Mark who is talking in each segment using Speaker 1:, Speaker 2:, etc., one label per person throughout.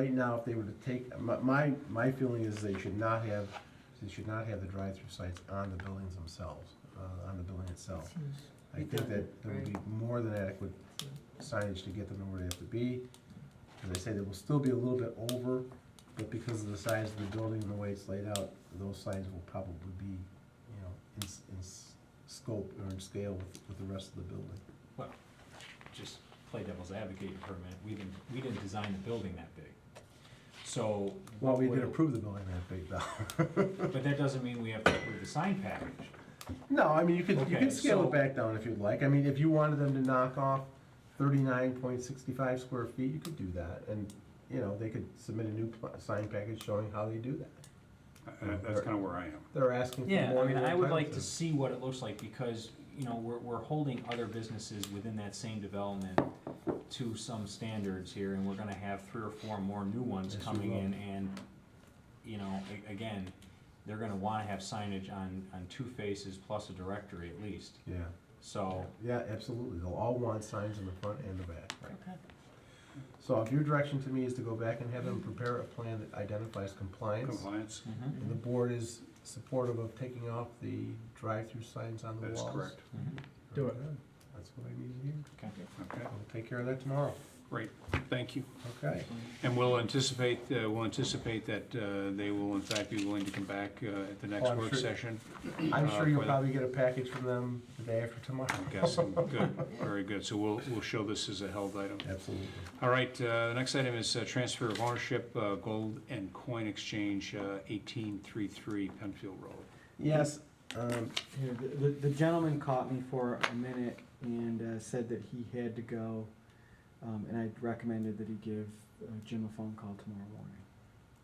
Speaker 1: Right now, if they were to take, my- my, my feeling is they should not have, they should not have the drive-through sites on the buildings themselves, uh, on the building itself. I think that there would be more than adequate signage to get them to where they have to be. As I say, they will still be a little bit over, but because of the size of the building and the way it's laid out, those signs will probably be, you know, in, s- in s- scope or in scale with, with the rest of the building.
Speaker 2: just play devil's advocate for a minute, we didn't, we didn't design the building that big. So.
Speaker 1: Well, we
Speaker 2: would-
Speaker 1: did approve the building that big though.
Speaker 2: But that doesn't mean we have to approve the sign package.
Speaker 1: No, I mean, you could, you
Speaker 2: Okay,
Speaker 1: could scale
Speaker 2: so-
Speaker 1: it back down if you'd like. I mean, if you wanted them to knock off thirty-nine point sixty-five square feet, you could do that. And, you know, they could submit a new pl- sign package showing how they do that.
Speaker 3: Uh, That's kind of where I am.
Speaker 1: They're asking for
Speaker 2: Yeah,
Speaker 1: more
Speaker 2: I mean,
Speaker 1: than
Speaker 2: I would
Speaker 1: entitled
Speaker 2: like to see what it looks like, because, you know, we're, we're holding other businesses within that same development to some standards here, and we're gonna have three or four more new ones
Speaker 1: Yes, we
Speaker 2: coming
Speaker 1: will.
Speaker 2: in, and, you know, a- again, they're gonna wanna have signage on, on two faces plus a directory at least,
Speaker 1: Yeah,
Speaker 2: so.
Speaker 1: yeah, absolutely. They'll all want signs in the front and the back.
Speaker 2: Okay.
Speaker 1: So if your direction to me is to go back and have them prepare a plan that identifies compliance,
Speaker 3: Compliance,
Speaker 2: Mhm.
Speaker 1: and the board is supportive of taking off the drive-through signs on the
Speaker 3: that's
Speaker 1: walls.
Speaker 3: correct.
Speaker 2: Mhm.
Speaker 4: Do it.
Speaker 1: That's what I need to hear.
Speaker 2: Okay.
Speaker 3: Okay,
Speaker 1: We'll take care of that tomorrow.
Speaker 3: great, thank you.
Speaker 1: Okay.
Speaker 3: And we'll anticipate, uh, we'll anticipate that uh, they will in fact be willing to come back uh, at the
Speaker 1: Oh,
Speaker 3: next
Speaker 1: I'm
Speaker 3: work
Speaker 1: sure.
Speaker 3: session.
Speaker 1: I'm
Speaker 3: uh,
Speaker 1: sure you'll
Speaker 3: for the-
Speaker 1: probably get a package from them the day after tomorrow.
Speaker 3: I'm guessing, good, very good. So we'll, we'll show this as a held item.
Speaker 1: Absolutely.
Speaker 3: All right, uh, the next item is uh, transfer of ownership, uh, gold and coin exchange, uh, 1833 Penfield Road.
Speaker 1: Yes, um,
Speaker 4: Yeah, the- the, the gentleman caught me for a minute and uh, said that he had to go, um, and I recommended that he give uh, Jim a phone call tomorrow morning.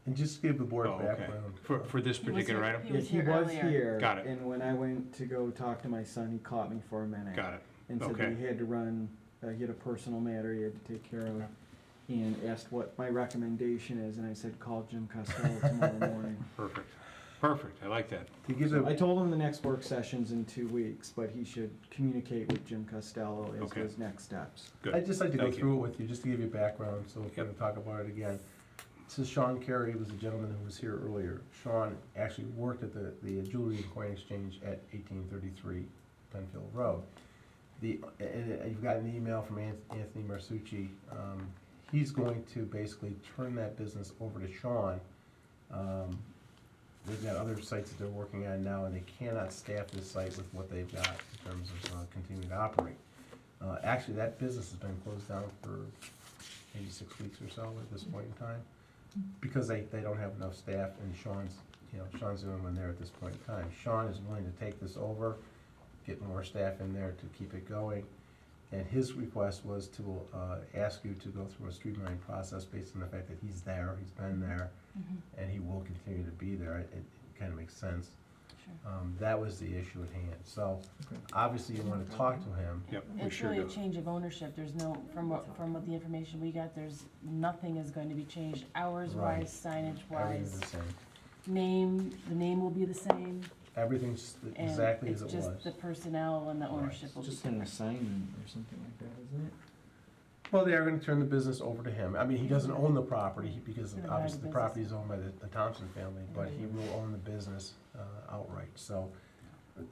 Speaker 1: and just give the board
Speaker 3: Oh,
Speaker 1: a
Speaker 3: okay.
Speaker 1: background.
Speaker 3: For, for this
Speaker 5: He was
Speaker 3: particular
Speaker 5: here-
Speaker 3: item?
Speaker 5: He was
Speaker 4: Yeah,
Speaker 5: here
Speaker 4: He
Speaker 5: earlier.
Speaker 4: was here.
Speaker 3: Got it.
Speaker 4: And when I went to go talk to my son, he caught me for a minute.
Speaker 3: Got it,
Speaker 4: And said
Speaker 3: okay.
Speaker 4: that he had to run, uh, he had a personal matter he had to take care of,
Speaker 3: Okay.
Speaker 4: and asked what my recommendation is, and I said, call Jim Costello tomorrow morning.
Speaker 3: perfect, perfect, I like that.
Speaker 1: To give
Speaker 4: I
Speaker 1: the,
Speaker 4: told him the next work session's in two weeks, but he should communicate with Jim Costello as to
Speaker 3: Okay.
Speaker 4: his next steps.
Speaker 3: Good.
Speaker 1: I'd just like to go
Speaker 3: Thank you.
Speaker 1: through it with you, just to give you background, so if we're gonna talk about it again. So Sean Carey was a gentleman who was here earlier. Sean actually worked at the, the jewelry and coin exchange at eighteen thirty-three Penfield Road. The, and you've got an email from An- Anthony Marsucci, um, he's going to basically turn that business over to Sean. Um, they've got other sites that they're working on now, and they cannot staff this site with what they've got in terms of uh, continuing to operate. Uh, actually, that business has been closed down for maybe six weeks or so at this point in time, because they, they don't have enough staff, and Sean's, you know, Sean's the only one there at this point in time. Sean is willing to take this over, get more staff in there to keep it going, and his request was to, uh, ask you to go through a streamlined process based on the fact that he's there, he's been there,
Speaker 5: Mhm,
Speaker 1: and he will continue to be there, it, it kinda makes sense.
Speaker 5: sure.
Speaker 1: Um, that was the issue at hand, so,
Speaker 4: Okay.
Speaker 1: obviously you wanna talk to him,
Speaker 3: Yep, we
Speaker 5: It's
Speaker 3: sure
Speaker 5: really a
Speaker 3: do.
Speaker 5: change of ownership, there's no, from what, from what the information we got, there's, nothing is going to be changed, hours
Speaker 1: Right.
Speaker 5: wise, signage
Speaker 1: everything's
Speaker 5: wise,
Speaker 1: the same,
Speaker 5: name, the name will be the same,
Speaker 1: everything's
Speaker 5: and
Speaker 1: exactly as
Speaker 5: it's
Speaker 1: it was.
Speaker 5: just the personnel and the
Speaker 1: Right.
Speaker 5: ownership will be
Speaker 4: Just an
Speaker 5: different.
Speaker 4: assignment or something like that, isn't it?
Speaker 1: Well, they are gonna turn the business over to him. I mean, he doesn't own the property, he- because
Speaker 5: Gonna buy the
Speaker 1: obviously the
Speaker 5: business. Mm-hmm.
Speaker 1: property is owned by the the Thompson family, but he
Speaker 5: Right.
Speaker 1: will own the business uh, outright, so.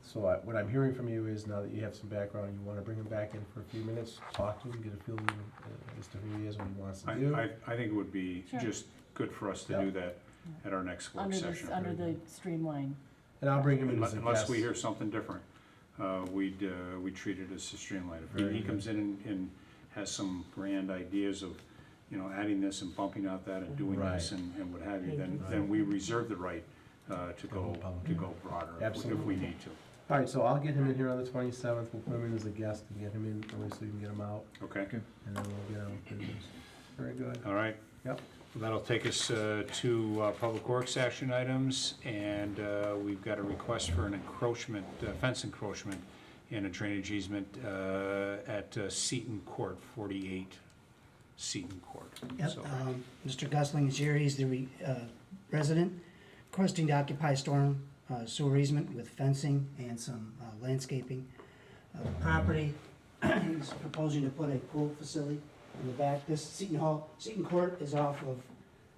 Speaker 1: So I- what I'm hearing from you is now that you have some background, you wanna bring him back in for a few minutes, talk to him, get a feel of, uh, as to who he is, what he wants
Speaker 3: I,
Speaker 1: to do.
Speaker 3: I, I think it would be
Speaker 5: Sure.
Speaker 3: just good for us to do that at our next work
Speaker 5: Under this, uh,
Speaker 3: session.
Speaker 5: under the streamline.
Speaker 1: And I'll bring him in
Speaker 3: Unless
Speaker 1: as a guest.
Speaker 3: unless we hear something different, uh, we'd, uh, we treat it as a streamline. If
Speaker 1: Very
Speaker 3: he- he
Speaker 1: good.
Speaker 3: comes in and- and has some grand ideas of, you know, adding this and bumping out that and doing this
Speaker 1: Right.
Speaker 3: and and what have you, then,
Speaker 1: Right.
Speaker 3: then we reserve the right uh, to go,
Speaker 1: public.
Speaker 3: to go broader if we- if
Speaker 1: Absolutely.
Speaker 3: we need to.
Speaker 1: All right, so I'll get him in here on the twenty-seventh, we'll put him in as a guest and get him in, early so you can get him out,
Speaker 3: Okay,
Speaker 1: and then we'll get on with business. Very good.
Speaker 3: all right.
Speaker 1: Yep.
Speaker 3: That'll take us uh, to uh, Public Works action items, and uh, we've got a request for an encroachment, uh, fence encroachment and a drainage easement uh, at uh, Seton Court, 48 Seton Court.
Speaker 6: Yep,
Speaker 3: So-
Speaker 6: um, Mr. Gusling is here, he's the re- uh, resident, requesting to occupy storm uh, sewer easement with fencing and some uh, landscaping of the property. He's proposing to put a pool facility in the back, this Seton Hall, Seton Court is off of